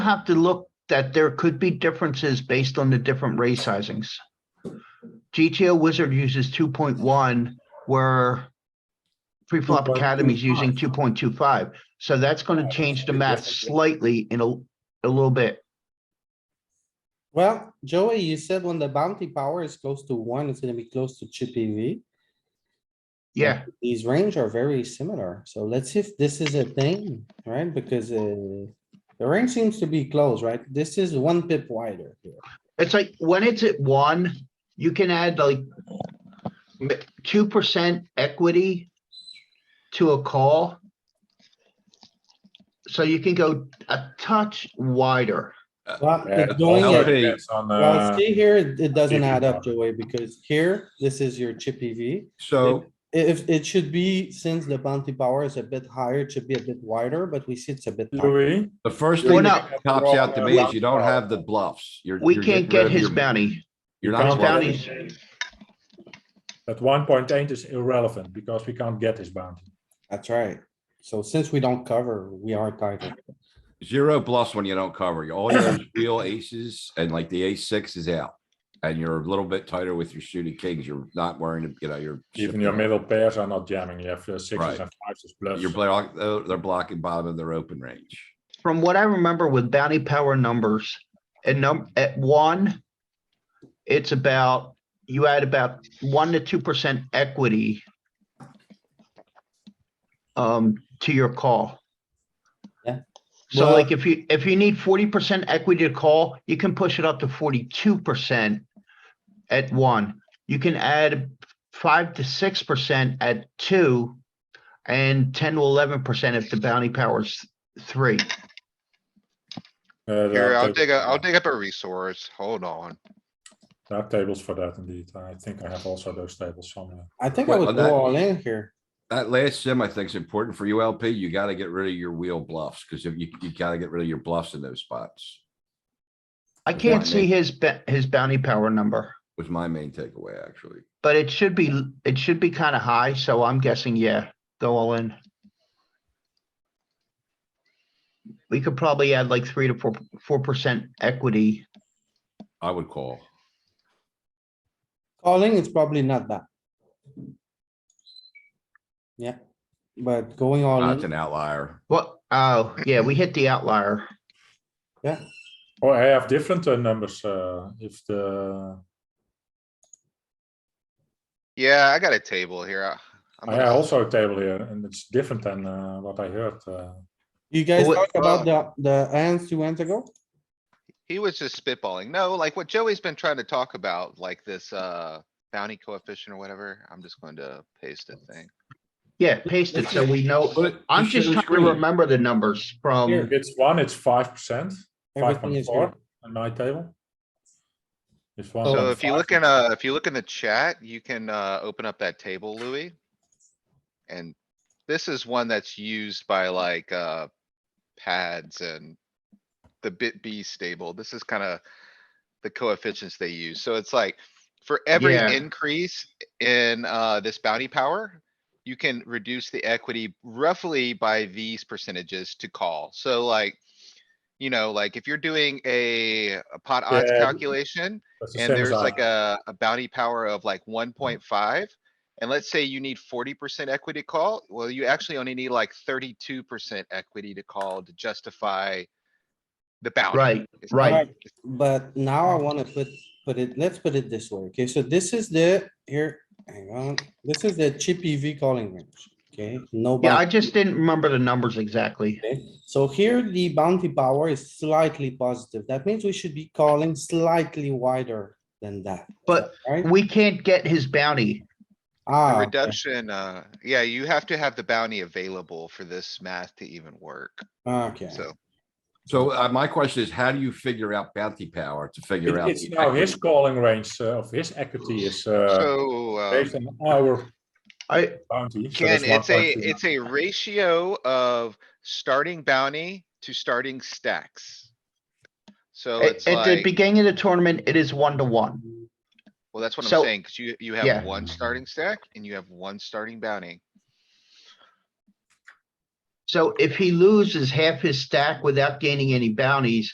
have to look that there could be differences based on the different ray sizings. GTO Wizard uses two point one where Preflop Academy's using two point two five. So that's going to change the math slightly in a, a little bit. Well, Joey, you said when the bounty power is close to one, it's gonna be close to chippy V. Yeah, These range are very similar, so let's see if this is a thing, right? Because uh, the range seems to be close, right? This is one pip wider here. it's like when it's at one, you can add like two percent equity to a call. So you can go a touch wider. Well, Yeah, it's going all at- of it's on the- Well, see here, it it doesn't chippy add up, V. Joey, because here, this is your chippy V. So, If, it should be, since the bounty power is a bit higher, it should be a bit wider, but we see it's a bit. tighter. Louis, the first Well, thing no. that pops out to me is you don't have the bluffs. You're. We you're can't get getting rid of his your- bounty. You're His not. bounty. bluffing. that one point eight is irrelevant because we can't get his bounty. That's right. So since we don't cover, we are tighter. Zero bluffs when you don't cover. You- All your real aces and like the ace six is out. And you're a little bit tighter with your shooting kings. You're not worrying, you know, you're. Even your middle pairs are not jamming. You have uh, sixes Right. and fives as bluffs. You're block, they're they're blocking bottom of their open range. From what I remember with bounty power numbers, at num, at one, it's about, you add about one to two percent equity um, to your call. Yeah. So Well- like if you, if you need forty percent equity to call, you can push it up to forty-two percent at one. You can add five to six percent at two and ten to eleven percent if the bounty power's three. Uh, there Here, are I'll tables dig, for a- I'll that. dig up a resource, hold on. There are tables for that indeed. I think I have also those tables somewhere. I think I Well, would that- go all in here. That last sim, I think is important for you LP. You gotta get rid of your wheel bluffs because if you, you gotta get rid of your bluffs in those spots. I Yeah, can't I see mean- his, ba- his bounty power number, Was my main takeaway, actually. but it should be, it should be kind of high, so I'm guessing, yeah, go all in. We could probably add like three to four, four percent equity. I would call. Calling, it's probably not that. Yeah, but going all That's in, an outlier. What, oh, yeah, we hit the outlier. Or Oh, I have different uh, numbers, uh, if the, Yeah, I got a table here. I- I'm I gonna- also a table here and it's different than, uh, what I heard. uh, you guys Well, uh, talked about the, the hands two hands ago? He was just spitballing. No, like what Joey's been trying to talk about, like this, uh, bounty coefficient or whatever. I'm just going to paste a thing. Yeah, paste it so we know. But I'm just trying to remember the numbers Here. from, If it's one, it's five percent, five Everything point is good. four on my table. If one. So point if you five, look in, uh, if you look in the chat, you can, uh, open up that table, Louis. And this is one that's used by like, uh, pads and the bit B stable. This is kinda the coefficients they use. So it's like, for every Yeah. increase in, uh, this bounty power, you can reduce the equity roughly by these percentages to call. So like, you know, like if you're doing a a pot odds Yeah. calculation, that's the and same there's as I- Mm-hmm. like a, a bounty power of like one point five. And let's say you need forty percent equity call, well, you actually only need like thirty-two percent equity to call to justify the bounty. right, It's- right. But now I wanna put, put it, let's put it this way, okay, so this is the, here, hang on, this is the chippy V calling range, okay? No. Yeah, I bounty. just didn't remember the numbers exactly. Okay, so here the bounty power is slightly positive. That means we should be calling slightly wider than that, But right? we can't get his bounty. Ah, The okay. reduction, uh, yeah, you have to have the bounty available for this math to even work, Okay, so. So uh, my question is, how do you figure out bounty power to figure It- out? It's the now his equity? calling range uh, of his equity is uh, So, uh, based on our I, bounty. so Ken, that's it's a, 1.2. it's a ratio of starting bounty to starting stacks. So At it's at the like. beginning of the tournament, it is one to one. Well, that's what So- I'm saying, cuz you, you yeah. have one starting stack and you have one starting bounty. So if he loses half his stack without gaining any bounties,